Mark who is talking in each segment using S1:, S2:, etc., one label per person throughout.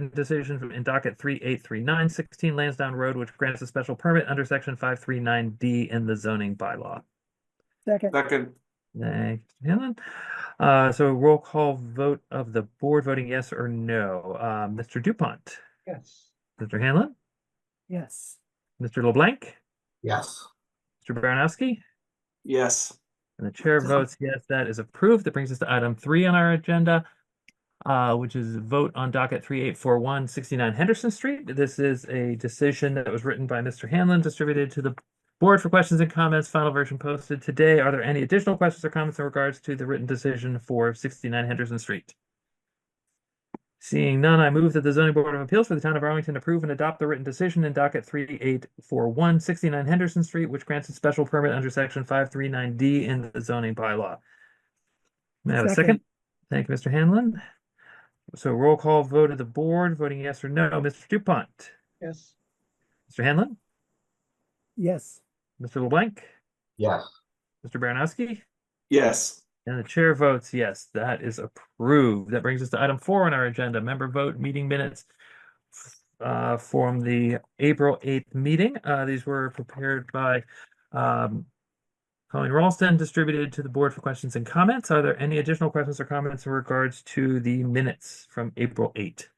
S1: written decision from in docket three eight three nine sixteen Lansdowne Road, which grants a special permit under section five three nine D in the zoning bylaw.
S2: second,
S3: Second,
S1: Thank you, Helen. Uh, so roll call vote of the board voting yes or no. Uh, Mr. Dupont,
S4: Yes.
S1: Mr. Hanlon,
S2: yes,
S1: Mr. LeBlanc,
S4: Yes.
S1: Mr. Baranowski,
S3: yes.
S1: and the chair votes yes, that is approved. That brings us to item three on our agenda, uh, which is vote on docket three eight four one sixty-nine Henderson Street. This is a decision that was written by Mr. Hanlon, distributed to the board for questions and comments, final version posted today. Are there any additional questions or comments in regards to the written decision for sixty-nine Henderson Street? Seeing none, I move that the zoning board of appeals for the town of Arlington approve and adopt the written decision in docket three eight four one sixty-nine Henderson Street, which grants a special permit under section five three nine D in the zoning bylaw. May I have a second?
S2: Second.
S1: Thank you, Mr. Hanlon. So roll call vote of the board, voting yes or no, Mr. Dupont,
S4: Yes.
S1: Mr. Hanlon,
S2: yes,
S1: Mr. LeBlanc,
S4: Yes.
S1: Mr. Baranowski,
S3: Yes,
S1: and the chair votes yes, that is approved. That brings us to item four on our agenda, member vote meeting minutes uh, from the April eighth meeting. Uh, these were prepared by um, Colleen Ralston, distributed to the board for questions and comments. Are there any additional questions or comments in regards to the minutes from April eight?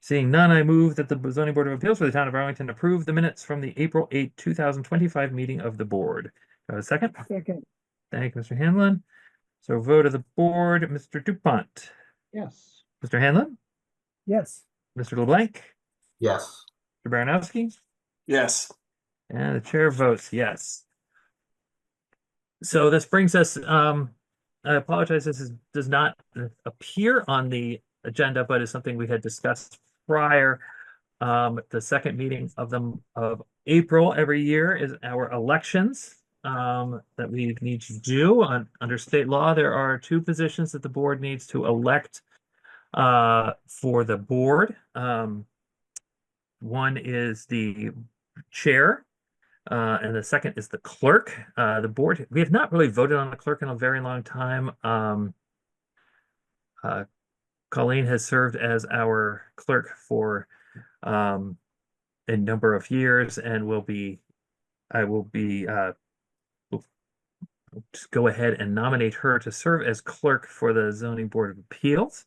S1: Seeing none, I move that the zoning board of appeals for the town of Arlington approve the minutes from the April eighth, two thousand twenty-five meeting of the board. Do I have a second?
S2: second,
S1: Thank you, Mr. Hanlon. So vote of the board, Mr. Dupont,
S4: Yes.
S1: Mr. Hanlon,
S2: yes,
S1: Mr. LeBlanc,
S4: Yes.
S1: Mr. Baranowski,
S3: yes,
S1: and the chair votes yes. So this brings us, um, I apologize, this is, does not appear on the agenda, but is something we had discussed prior. Um, the second meeting of the, of April every year is our elections. Um, that we need to do on, under state law, there are two positions that the board needs to elect. Uh, for the board, um. One is the chair. Uh, and the second is the clerk. Uh, the board, we have not really voted on the clerk in a very long time. Um, uh, Colleen has served as our clerk for um, a number of years and will be, I will be, uh, will- will just go ahead and nominate her to serve as clerk for the zoning board of appeals.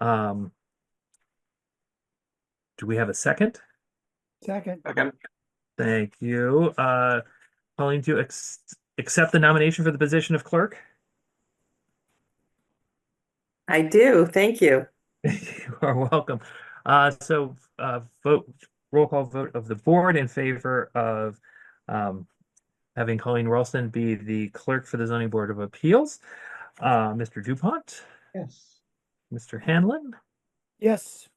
S1: Um, do we have a second?
S2: second,
S3: second,
S1: Thank you. Uh, calling to ex- accept the nomination for the position of clerk.
S5: I do, thank you.
S1: You are welcome. Uh, so, uh, vote, roll call vote of the board in favor of, um, having Colleen Ralston be the clerk for the zoning board of appeals. Uh, Mr. Dupont,
S4: Yes.
S1: Mr. Hanlon,
S2: yes,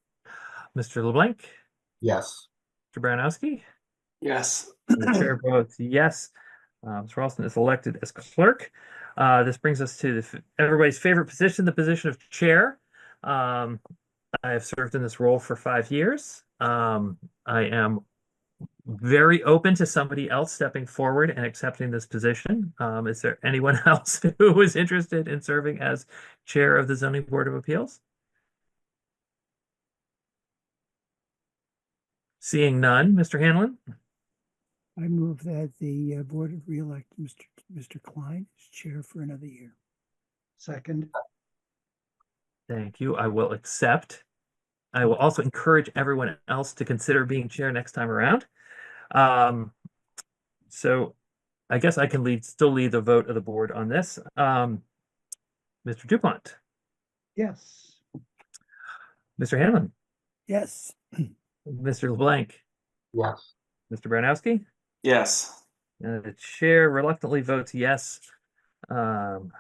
S1: Mr. LeBlanc,
S4: Yes.
S1: Mr. Baranowski.
S3: yes,
S1: The chair votes yes. Um, Mr. Ralston is elected as clerk. Uh, this brings us to the, f- everybody's favorite position, the position of chair. Um, I have served in this role for five years. Um, I am very open to somebody else stepping forward and accepting this position. Um, is there anyone else who is interested in serving as chair of the zoning board of appeals? Seeing none, Mr. Hanlon?
S2: I move that the uh, board reelect Mr. Mr. Klein as chair for another year.
S4: Second.
S1: Thank you. I will accept. I will also encourage everyone else to consider being chair next time around. Um, so I guess I can lead, still lead the vote of the board on this. Um, Mr. Dupont,
S4: Yes.
S1: Mr. Hanlon,
S2: Yes,
S1: Mr. LeBlanc,
S4: Yes.
S1: Mr. Baranowski.
S3: yes,
S1: Uh, the chair reluctantly votes yes um,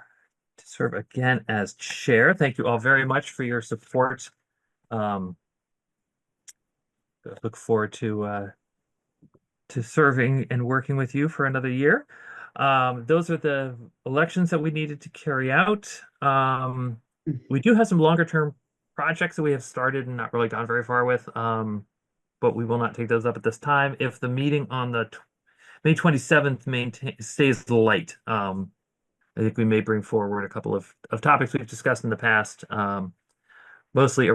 S1: to serve again as chair. Thank you all very much for your support. Um, I look forward to uh, to serving and working with you for another year. Um, those are the elections that we needed to carry out. Um, we do have some longer term projects that we have started and not really gone very far with, um, but we will not take those up at this time. If the meeting on the tw- May 27th maintain, stays light. Um, I think we may bring forward a couple of, of topics we've discussed in the past. Um, mostly